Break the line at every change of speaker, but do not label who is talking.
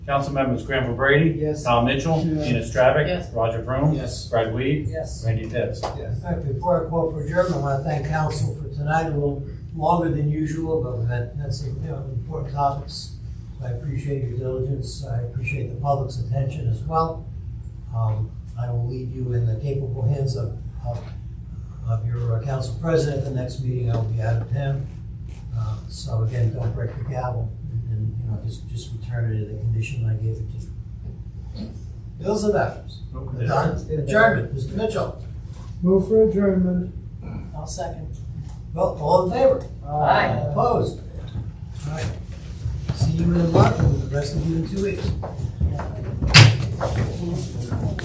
Council members Granville Brady.
Yes.
Tom Mitchell.
Yes.
Gina Stravic.
Yes.
Roger Vroom.
Yes.
Fred Weed.
Yes.
Randy Pitts.
Yes.
All right, before I call for adjournment, I want to thank council for tonight, a little longer than usual, but that, that's, you know, important topics. So I appreciate your diligence, I appreciate the public's attention as well. Um, I will leave you in the capable hands of, of, of your uh, council president, the next meeting I will be out of town. Uh, So again, don't break the gavel, and- and, you know, just, just return it to the condition I gave it to you. Bills and vouchers, done, adjournment, Mr. Mitchell.
Move for adjournment.
I'll second.
Well, all in favor?
Aye.
Opposed? All right. See you in a month, and the rest of you in two weeks.